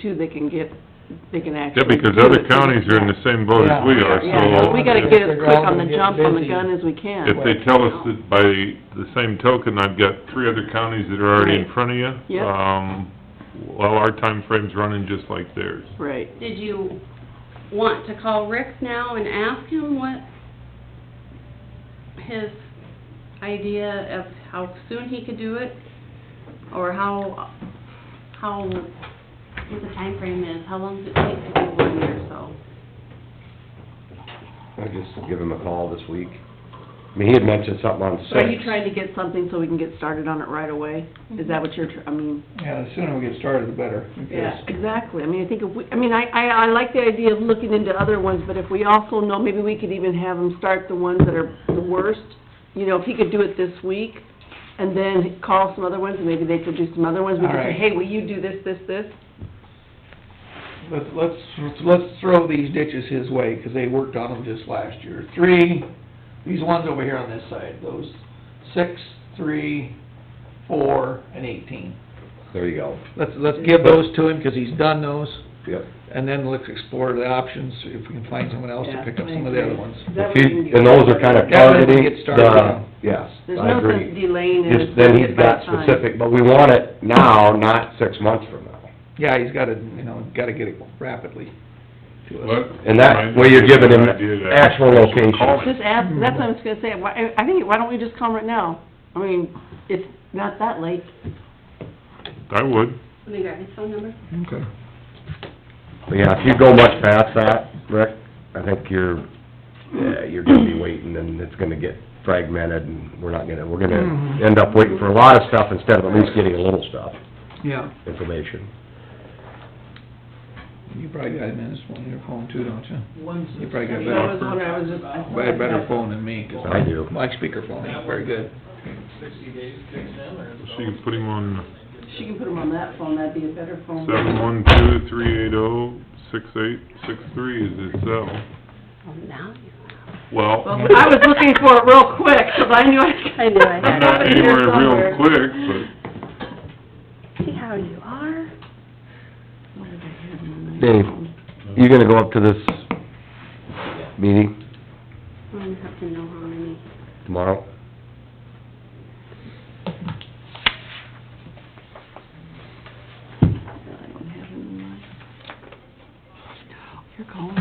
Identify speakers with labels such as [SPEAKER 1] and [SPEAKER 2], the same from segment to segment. [SPEAKER 1] too, they can get, they can
[SPEAKER 2] Yeah,
[SPEAKER 1] actually.
[SPEAKER 2] because
[SPEAKER 1] do
[SPEAKER 2] other
[SPEAKER 1] it.
[SPEAKER 2] counties are in the same boat as we are,
[SPEAKER 1] Yeah,
[SPEAKER 2] so
[SPEAKER 1] we gotta get as quick on the jump on the gun as we can.
[SPEAKER 2] if they tell us that by the same token, I've got three other counties that are already in front of you,
[SPEAKER 1] Yep.
[SPEAKER 2] um, well, our time frame's running just like theirs.
[SPEAKER 1] Right,
[SPEAKER 3] Did you want to call Rick now and ask him what his idea of how soon he could do it? Or how, how, what the time frame is, how long does it take to do one year, so?
[SPEAKER 4] I just give him a call this week. I mean, he had mentioned something on six.
[SPEAKER 1] so are you trying to get something so we can get started on it right away? Is that what you're, tr- I mean,
[SPEAKER 5] Yeah, the sooner we get started, the better. because-
[SPEAKER 1] yeah, exactly, I mean, I think if we, I mean, I, I, I like the idea of looking into other ones, but if we also know, maybe we could even have them start the ones that are the worst. You know, if he could do it this week, and then call some other ones, and maybe they could do some other ones, we could say,
[SPEAKER 5] Alright.
[SPEAKER 1] hey, will you do this, this, this?
[SPEAKER 5] Let's, let's, let's throw these ditches his way, because they worked on them just last year. Three, these ones over here on this side, those six, three, four, and eighteen.
[SPEAKER 4] There you go.
[SPEAKER 5] Let's, let's give those to him, because he's done those,
[SPEAKER 4] Yep.
[SPEAKER 5] and then let's explore the options, if we can find someone else to
[SPEAKER 1] Yeah,
[SPEAKER 5] pick up
[SPEAKER 1] I
[SPEAKER 5] some of the other
[SPEAKER 1] agree.
[SPEAKER 5] ones.
[SPEAKER 1] That way we can
[SPEAKER 4] He-
[SPEAKER 1] get-
[SPEAKER 4] And those are kind
[SPEAKER 5] That way we
[SPEAKER 4] of
[SPEAKER 5] can
[SPEAKER 4] targeting
[SPEAKER 5] get started, yeah.
[SPEAKER 4] the, yes,
[SPEAKER 1] There's
[SPEAKER 4] I
[SPEAKER 1] no sense
[SPEAKER 4] agree.
[SPEAKER 1] delaying it.
[SPEAKER 4] Just then
[SPEAKER 1] Get
[SPEAKER 4] he's
[SPEAKER 1] by
[SPEAKER 4] got
[SPEAKER 1] time.
[SPEAKER 4] specific, but we want it now, not six months from now.
[SPEAKER 5] Yeah, he's gotta, you know, gotta get it rapidly to us.
[SPEAKER 4] And that way you're giving him actual location.
[SPEAKER 1] Just ask, that's what I was gonna say, why, I- I think, why don't we just call 'em right now? I mean, it's not that late.
[SPEAKER 2] I would,
[SPEAKER 3] Let me grab his phone number.
[SPEAKER 5] Okay.
[SPEAKER 4] But yeah, if you go much past that, Rick, I think you're, yeah, you're gonna be waiting and it's gonna get fragmented and we're not gonna, we're gonna
[SPEAKER 1] Mm-hmm.
[SPEAKER 5] Mhm.
[SPEAKER 4] end up waiting for a lot of stuff instead of at least getting a little stuff,
[SPEAKER 5] Yeah,
[SPEAKER 4] information.
[SPEAKER 5] you probably got him in this one, your phone too, don't you?
[SPEAKER 6] Ones
[SPEAKER 5] You probably got
[SPEAKER 1] That
[SPEAKER 5] a
[SPEAKER 1] was
[SPEAKER 5] better,
[SPEAKER 1] when I was just. I-
[SPEAKER 5] I had better phone than me, 'cause
[SPEAKER 4] I do.
[SPEAKER 5] my speakerphone ain't very good.
[SPEAKER 6] sixty days kicks in or?
[SPEAKER 2] so you can put him on
[SPEAKER 1] She can put 'em on that phone, that'd be a better phone.
[SPEAKER 2] seven one two three eight oh six eight six three is his cell.
[SPEAKER 3] Oh, now you
[SPEAKER 2] Well,
[SPEAKER 1] Well, I was looking for it real quick, 'cause I knew I.
[SPEAKER 3] I knew I had
[SPEAKER 2] I'm
[SPEAKER 3] it.
[SPEAKER 2] not anywhere real
[SPEAKER 1] somewhere.
[SPEAKER 2] quick, but
[SPEAKER 3] See how you are?
[SPEAKER 1] Where did I have 'em on my
[SPEAKER 4] Dave.
[SPEAKER 1] phone?
[SPEAKER 4] You gonna go up to this meeting
[SPEAKER 3] I'm gonna have to know how many.
[SPEAKER 4] tomorrow?
[SPEAKER 1] I don't have 'em in my- You're calling,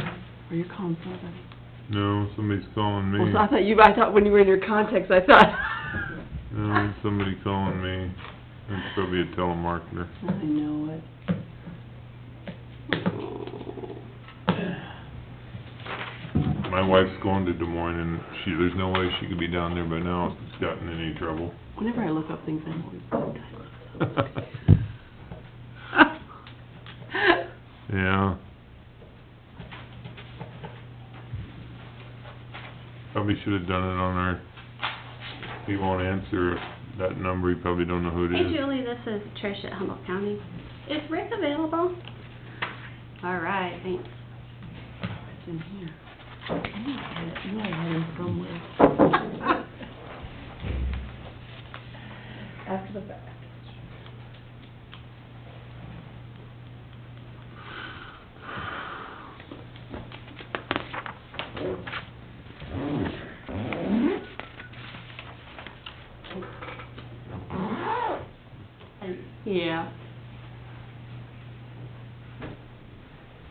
[SPEAKER 1] or you're calling somebody.
[SPEAKER 2] no, somebody's calling
[SPEAKER 1] Well,
[SPEAKER 2] me.
[SPEAKER 1] so I thought you, I thought when you were in your contacts, I thought.
[SPEAKER 2] No, somebody calling me. It's probably a telemarketer.
[SPEAKER 1] I know it.
[SPEAKER 2] My wife's going to Des Moines and she, there's no way she could be down there by now if it's gotten in any trouble.
[SPEAKER 1] Whenever I look up things, I'm always
[SPEAKER 2] Yeah. Probably should have done it on our, he won't answer that number, he probably don't know who it
[SPEAKER 3] Hey
[SPEAKER 2] is.
[SPEAKER 3] Julie, this is Trish at Humboldt County. Is Rick available? All right, thanks.
[SPEAKER 1] It's in here. You had it, you had it somewhere.
[SPEAKER 3] Yeah.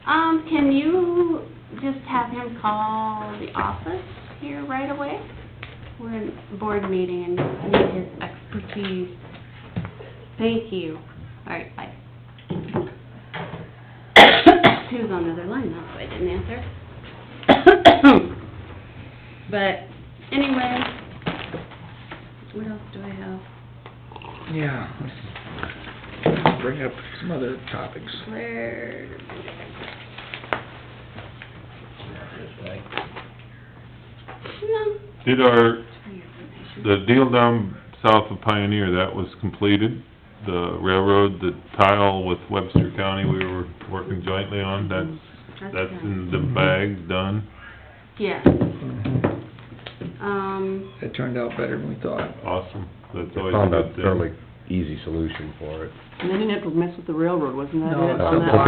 [SPEAKER 3] Um, can you just have him call the office here right away? We're in a board meeting and need his expertise. Thank you. All right, bye. He was on the other line, that's why I didn't answer. But anyway, what else do I have?
[SPEAKER 5] Yeah. Bring up some other topics.
[SPEAKER 3] Where? No.
[SPEAKER 2] Did our, the deal down south of Pioneer, that was completed? The railroad, the tile with Webster County we were working jointly on, that's, that's in the bag, done?
[SPEAKER 3] Yeah, um,
[SPEAKER 5] It turned out better than we thought.
[SPEAKER 2] Awesome, that's
[SPEAKER 4] I
[SPEAKER 2] always a
[SPEAKER 4] found a
[SPEAKER 2] good thing.
[SPEAKER 4] fairly easy solution for it.
[SPEAKER 1] And they didn't have to mess with the railroad, wasn't that it?
[SPEAKER 5] No, it's
[SPEAKER 1] on
[SPEAKER 5] a
[SPEAKER 1] that
[SPEAKER 4] block.